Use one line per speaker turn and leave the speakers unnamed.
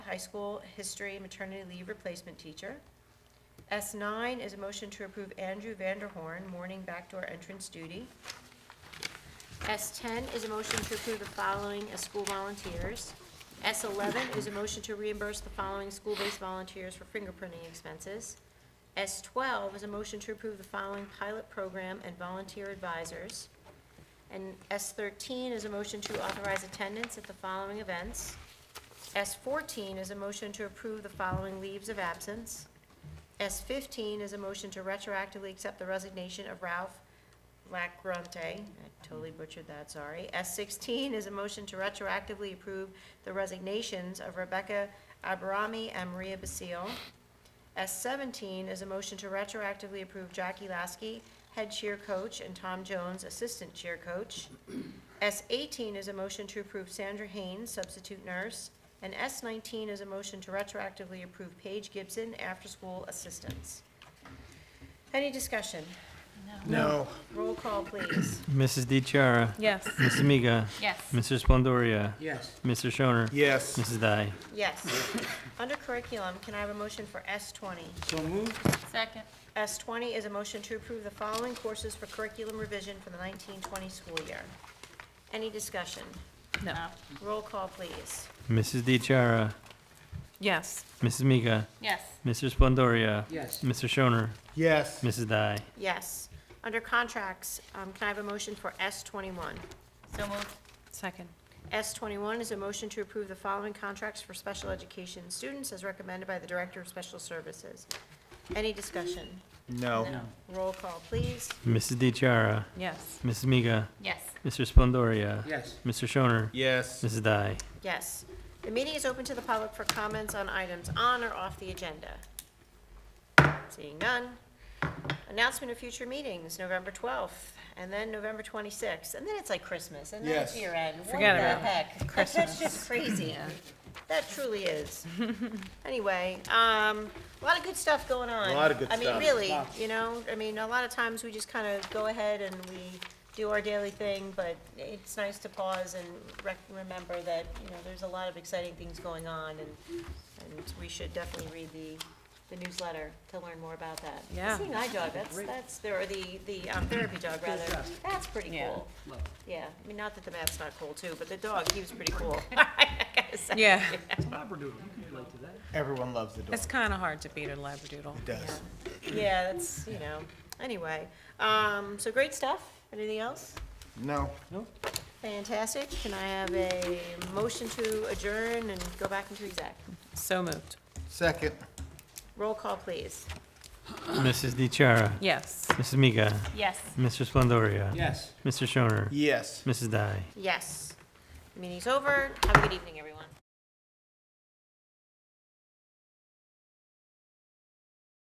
high school history maternity leave replacement teacher. S9 is a motion to approve Andrew Vanderhorn, morning backdoor entrance duty. S10 is a motion to approve the following as school volunteers. S11 is a motion to reimburse the following school-based volunteers for fingerprinting expenses. S12 is a motion to approve the following pilot program and volunteer advisors. And S13 is a motion to authorize attendance at the following events. S14 is a motion to approve the following leaves of absence. S15 is a motion to retroactively accept the resignation of Ralph Lacrante. I totally butchered that, sorry. S16 is a motion to retroactively approve the resignations of Rebecca Aberami and Maria Basile. S17 is a motion to retroactively approve Jackie Lasky, head cheer coach, and Tom Jones, assistant cheer coach. S18 is a motion to approve Sandra Haynes, substitute nurse. And S19 is a motion to retroactively approve Paige Gibson, after-school assistance. Any discussion?
No.
Roll call, please.
Mrs. DiChiara.
Yes.
Ms. Amiga.
Yes.
Mr. Splendoria.
Yes.
Mr. Shoner.
Yes.
Mrs. Dai.
Yes. Under curriculum, can I have a motion for S20?
So moved?
Second.
S20 is a motion to approve the following courses for curriculum revision for the 1920 school year. Any discussion?
No.
Roll call, please.
Mrs. DiChiara.
Yes.
Mrs. Miga.
Yes.
Mr. Splendoria.
Yes.
Mr. Shoner.
Yes.
Mrs. Dai.
Yes. Under contracts, um, can I have a motion for S21?
So moved. Second.
S21 is a motion to approve the following contracts for special education students as recommended by the Director of Special Services. Any discussion?
No.
Roll call, please.
Mrs. DiChiara.
Yes.
Mrs. Miga.
Yes.
Mr. Splendoria.
Yes.
Mr. Shoner.
Yes.
Mrs. Dai.
Yes. The meeting is open to the public for comments on items on or off the agenda. Seeing none. Announcement of future meetings, November 12th, and then November 26th, and then it's like Christmas, and then it's
Yes.
year end. What
Forget
the
about it.
heck? That's just crazy. That truly is. Anyway, um, a lot of good stuff going on.
A lot of good
I mean,
stuff.
really,
Lots.
you know, I mean, a lot of times we just kind of go ahead and we do our daily thing, but it's nice to pause and rec- remember that, you know, there's a lot of exciting things going on and, and we should definitely read the, the newsletter to learn more about that.
Yeah.
Seeing eye dog, that's, that's, or the, the um, therapy dog rather, that's pretty
Yeah.
cool. Yeah, I mean, not that the mat's not cool too, but the dog, he was pretty cool. I gotta say.
Yeah.
Everyone loves the dog.
It's kind of hard to beat a labradoodle.
It does.
Yeah, that's, you know, anyway, um, so great stuff. Anything else?
No.
Fantastic. Can I have a motion to adjourn and go back into exec?
So moved.
Second.
Roll call, please.
Mrs. DiChiara.
Yes.
Mrs. Miga.
Yes.
Mr. Splendoria.
Yes.
Mr. Shoner.
Yes.
Mrs. Dai.
Yes. Meeting's over. Have a good evening, everyone.